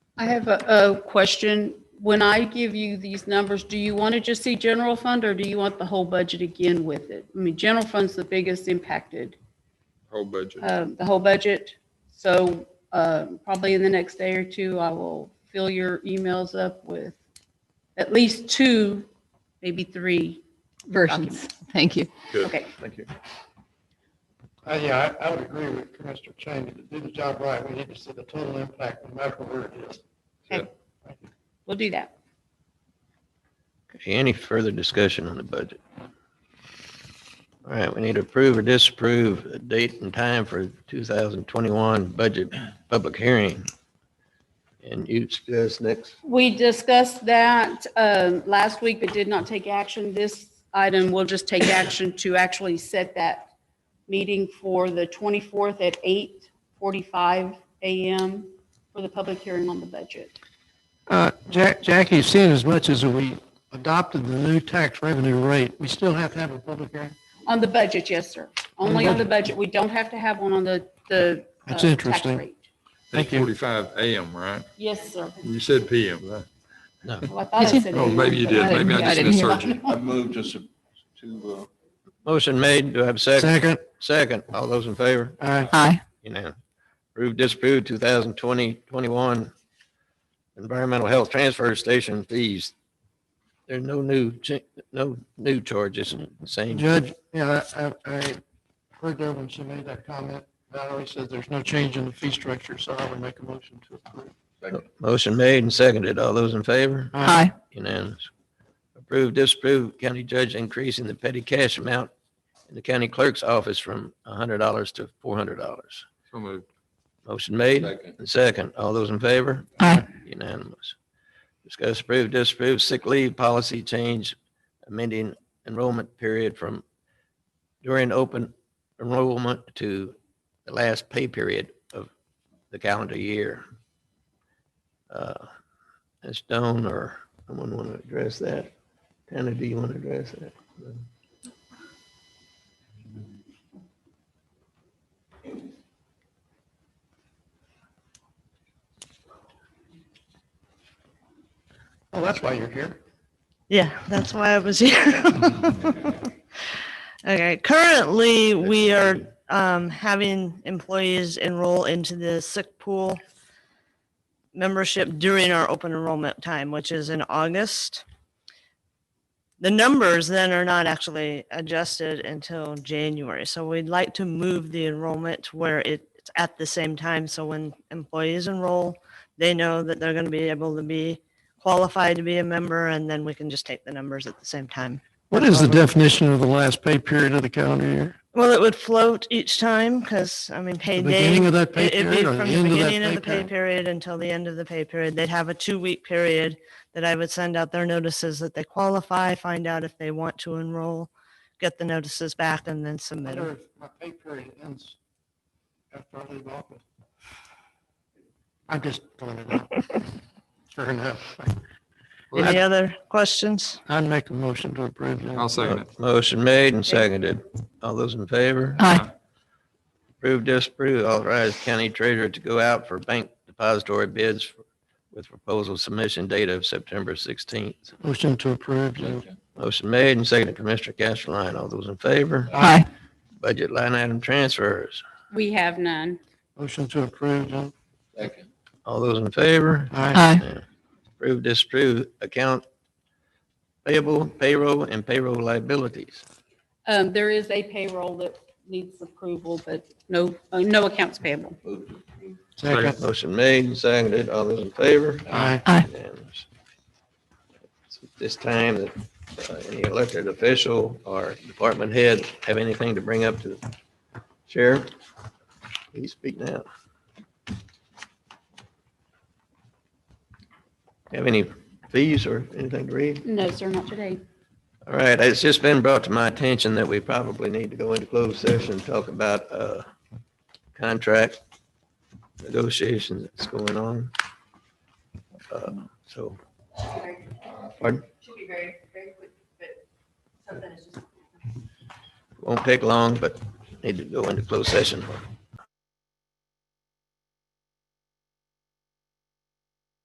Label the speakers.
Speaker 1: I have a, a question. When I give you these numbers, do you want to just see general fund or do you want the whole budget again with it? I mean, general fund's the biggest impacted,
Speaker 2: whole budget.
Speaker 1: um, the whole budget. So, uh, probably in the next day or two, I will fill your emails up with at least two, maybe three.
Speaker 3: versions. Thank you.
Speaker 2: Good.
Speaker 1: Okay.
Speaker 2: Thank you.
Speaker 4: Uh, Yeah, I, I would agree with Commissioner Chamey. To do the job right, we need to see the total impact, no matter where it is.
Speaker 1: We'll do that.
Speaker 5: Any further discussion on the budget? All right, we need to approve or disapprove a date and time for 2021 budget public hearing. And you suggest next,
Speaker 1: We discussed that um, last week, but did not take action. This item will just take action to actually set that meeting for the 24th at 8:45 a.m. for the public hearing on the budget.
Speaker 4: Uh, Jack, Jackie, seeing as much as we adopted the new tax revenue rate, we still have to have a public hearing?
Speaker 1: On the budget, yes, sir. Only on the budget. We don't have to have one on the, the. uh,
Speaker 4: That's
Speaker 1: tax
Speaker 4: interesting.
Speaker 1: rate.
Speaker 4: Thank you.
Speaker 2: 8:45 AM, right?
Speaker 1: Yes, sir.
Speaker 2: You said PM, right?
Speaker 1: Well, I thought I said
Speaker 2: Oh, maybe you did. Maybe I
Speaker 3: I
Speaker 2: just
Speaker 3: didn't hear.
Speaker 2: misheard you.
Speaker 6: I moved to, su- to, uh,
Speaker 5: motion made, do I have a second?
Speaker 4: Second,
Speaker 5: Second, all those in favor?
Speaker 4: uh,
Speaker 3: Aye.
Speaker 5: Unanimous. Approve, disapprove 2020, 21 environmental health transfer station fees. There are no new, cha- no new charges, same.
Speaker 4: Judge, yeah, I, I I heard there when she made that comment. Valerie said there's no change in the fee structure, so I would make a motion to approve.
Speaker 5: Motion made and seconded. All those in favor?
Speaker 4: Uh,
Speaker 3: Aye.
Speaker 5: Unanimous. Approve, disapprove, county judge increasing the petty cash amount in the county clerk's office from $100 to $400.
Speaker 2: So moved.
Speaker 5: Motion made
Speaker 6: second,
Speaker 5: and second. All those in favor?
Speaker 3: Aye.
Speaker 5: Unanimous. Discuss, approve, disapprove sick leave policy change, amending enrollment period from during open enrollment to the last pay period of the calendar year. Uh, Ms. Stone or someone want to address that? Tanner, do you want to address that?
Speaker 4: Oh, that's why you're here.
Speaker 7: Yeah, that's why I was here. Okay, currently, we are um, having employees enroll into the sick pool membership during our open enrollment time, which is in August. The numbers then are not actually adjusted until January, so we'd like to move the enrollment to where it's at the same time, so when employees enroll, they know that they're going to be able to be qualified to be a member, and then we can just take the numbers at the same time.
Speaker 4: What is the definition of the last pay period of the calendar year?
Speaker 7: Well, it would float each time because, I mean,
Speaker 4: The
Speaker 7: payday.
Speaker 4: beginning of that pay
Speaker 7: it- It'd be
Speaker 4: period or the
Speaker 7: from the
Speaker 4: end of that
Speaker 7: beginning of
Speaker 4: pay
Speaker 7: the pay
Speaker 4: period?
Speaker 7: period until the end of the pay period. They'd have a two-week period that I would send out their notices that they qualify, find out if they want to enroll, get the notices back and then
Speaker 4: I
Speaker 7: submit
Speaker 4: wonder
Speaker 7: 'em.
Speaker 4: if my pay period ends after I leave office. I'm just throwing it out. Sure enough, Well,
Speaker 7: Any other questions?
Speaker 4: I'd make a motion to approve. that.
Speaker 2: I'll second it.
Speaker 5: Motion made and seconded. All those in favor?
Speaker 3: Aye.
Speaker 5: Approve, disapprove, authorize county treasurer to go out for bank depository bids with proposal submission date of September 16th.
Speaker 4: Motion to approve. Judge.
Speaker 6: second,
Speaker 5: Motion made and seconded, Commissioner Castleline. All those in favor?
Speaker 3: Aye.
Speaker 5: Budget line item transfers.
Speaker 1: We have none.
Speaker 4: Motion to approve. Judge.
Speaker 6: second,
Speaker 5: All those in favor?
Speaker 4: Aye.
Speaker 3: Aye.
Speaker 5: Approve, disapprove, account payable, payroll, and payroll liabilities.
Speaker 1: Um, There is a payroll that needs approval, but no, uh, no accounts payable.
Speaker 6: moved to approve,
Speaker 4: Second.
Speaker 5: Motion made and seconded. All those in favor?
Speaker 4: Aye.
Speaker 5: Unanimous. At This time, that uh, any elected official or department head have anything to bring up to the sheriff, please speak now. Have any fees or anything to read?
Speaker 1: No, sir, not today.
Speaker 5: All right, it's just been brought to my attention that we probably need to go into closed session and talk about uh, contract negotiations that's going on. Uh, So. Pardon? Should be very, very quick, but something is just. Won't take long, but need to go into closed session. for